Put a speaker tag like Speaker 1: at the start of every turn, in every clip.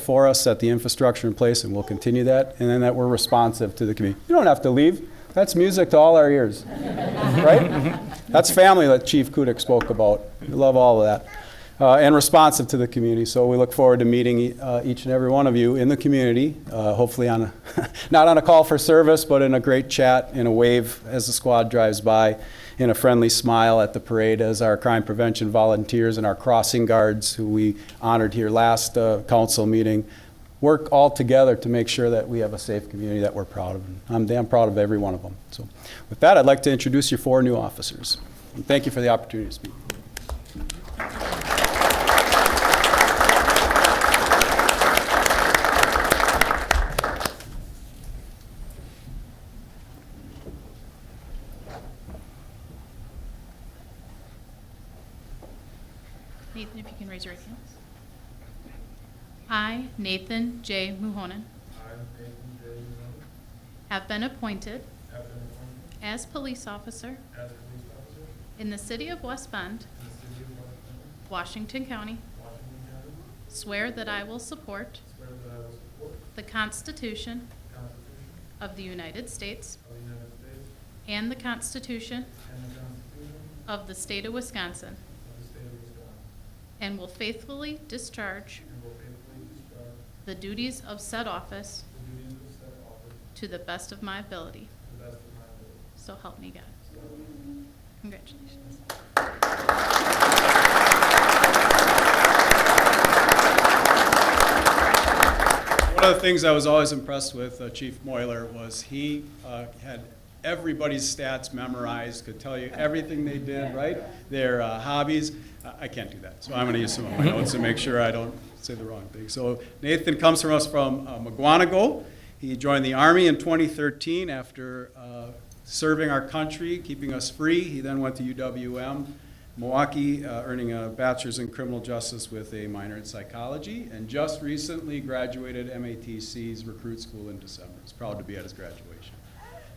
Speaker 1: for us, set the infrastructure in place, and we'll continue that, and then that we're responsive to the community. You don't have to leave. That's music to all our ears, right? That's family that Chief Kudik spoke about. We love all of that. Uh, and responsive to the community. So we look forward to meeting uh, each and every one of you in the community, uh, hopefully on a, not on a call for service, but in a great chat, in a wave as the squad drives by, in a friendly smile at the parade as our crime prevention volunteers and our crossing guards, who we honored here last uh, council meeting, work all together to make sure that we have a safe community that we're proud of. I'm damn proud of every one of them. So with that, I'd like to introduce your four new officers. And thank you for the opportunity to speak.
Speaker 2: Nathan, if you can raise your right hand. I, Nathan J. Muhonan,
Speaker 3: I, Nathan J. Young,
Speaker 2: have been appointed
Speaker 3: have been appointed
Speaker 2: as police officer
Speaker 3: as police officer in
Speaker 2: in the city of West Bend,
Speaker 3: the city of West Bend,
Speaker 2: Washington County,
Speaker 3: Washington County,
Speaker 2: swear that I will support
Speaker 3: swear that I will support
Speaker 2: the Constitution
Speaker 3: the Constitution
Speaker 2: of the United States
Speaker 3: of the United States
Speaker 2: and the Constitution
Speaker 3: and the Constitution
Speaker 2: of the state of Wisconsin,
Speaker 3: of the state of Wisconsin,
Speaker 2: and will faithfully discharge
Speaker 3: and will faithfully discharge
Speaker 2: the duties of said office
Speaker 3: the duties of said office
Speaker 2: to the best of my ability.
Speaker 3: to the best of my ability.
Speaker 2: So help me God. Congratulations.
Speaker 1: One of the things I was always impressed with uh, Chief Moiler was he uh, had everybody's stats memorized, could tell you everything they did, right? Their uh, hobbies. I I can't do that, so I'm going to use some of my notes to make sure I don't say the wrong thing. So Nathan comes from us from uh, McGuanago. He joined the Army in 2013 after uh, serving our country, keeping us free. He then went to UWM. Milwaukee, uh, earning a bachelor's in criminal justice with a minor in psychology, and just recently graduated MATC's recruit school in December. It's proud to be at his graduation.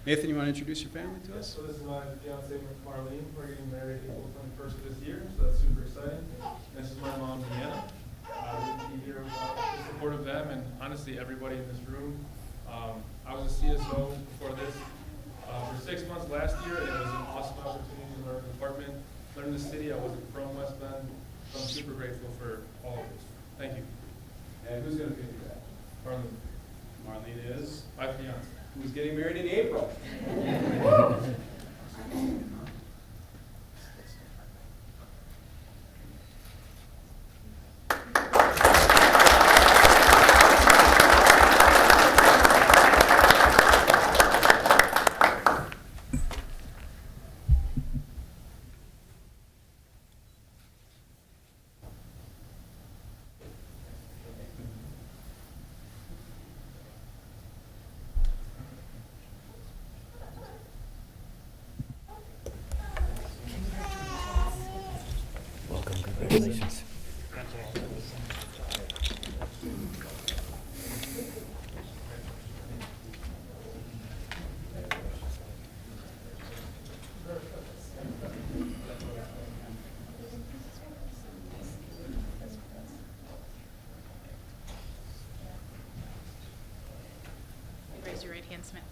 Speaker 1: Nathan, you want to introduce your family to us?
Speaker 3: So this is my fiancee Marlene, we're getting married April twenty-first of this year, so that's super exciting. This is my mom, Deanna. Uh, we'd be here without the support of them and honestly, everybody in this room. Um, I was a CSO before this, uh, for six months last year, and it was an awesome opportunity to learn the department, learn the city, I wasn't from West Bend, so I'm super grateful for all of this. Thank you.
Speaker 1: And who's going to be that?
Speaker 3: Marlene,
Speaker 1: Marlene is,
Speaker 3: my fiance.
Speaker 1: who's getting married in April.
Speaker 4: Welcome, congratulations.
Speaker 2: Raise your right hand, Samantha.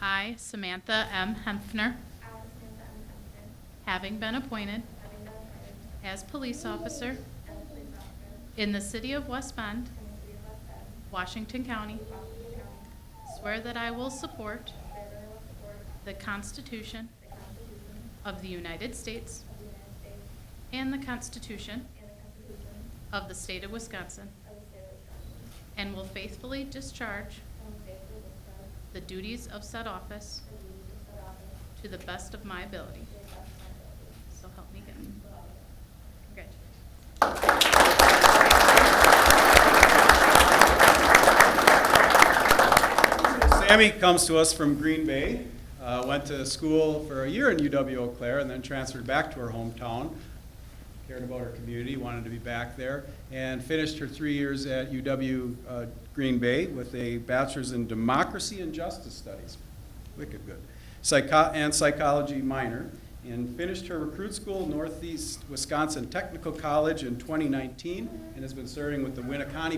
Speaker 2: I, Samantha M. Hempner,
Speaker 5: Allison Van Hemden,
Speaker 2: having been appointed
Speaker 5: having been hired
Speaker 2: as police officer
Speaker 5: as a police officer
Speaker 2: in the city of West Bend,
Speaker 5: in the city of West Bend,
Speaker 2: Washington County,
Speaker 5: Washington County,
Speaker 2: swear that I will support
Speaker 5: swear that I will support
Speaker 2: the Constitution
Speaker 5: the Constitution
Speaker 2: of the United States
Speaker 5: of the United States
Speaker 2: and the Constitution
Speaker 5: and the Constitution
Speaker 2: of the state of
Speaker 5: of
Speaker 2: Wisconsin,
Speaker 5: the state of Wisconsin,
Speaker 2: and will
Speaker 5: and will faithfully
Speaker 2: faithfully discharge
Speaker 5: discharge
Speaker 2: the duties of said office
Speaker 5: the duties of said office to
Speaker 2: to the best of my ability.
Speaker 5: the best of my ability.
Speaker 2: So help me God. Congratulations.
Speaker 1: Sammy comes to us from Green Bay, uh, went to school for a year in UW Eau Claire, and then transferred back to her hometown. Cared about her community, wanted to be back there, and finished her three years at UW uh, Green Bay with a bachelor's in democracy and justice studies. Wicked good. Psycho- and psychology minor, and finished her recruit school, Northeast Wisconsin Technical College, in 2019, and has been serving with the Winneconne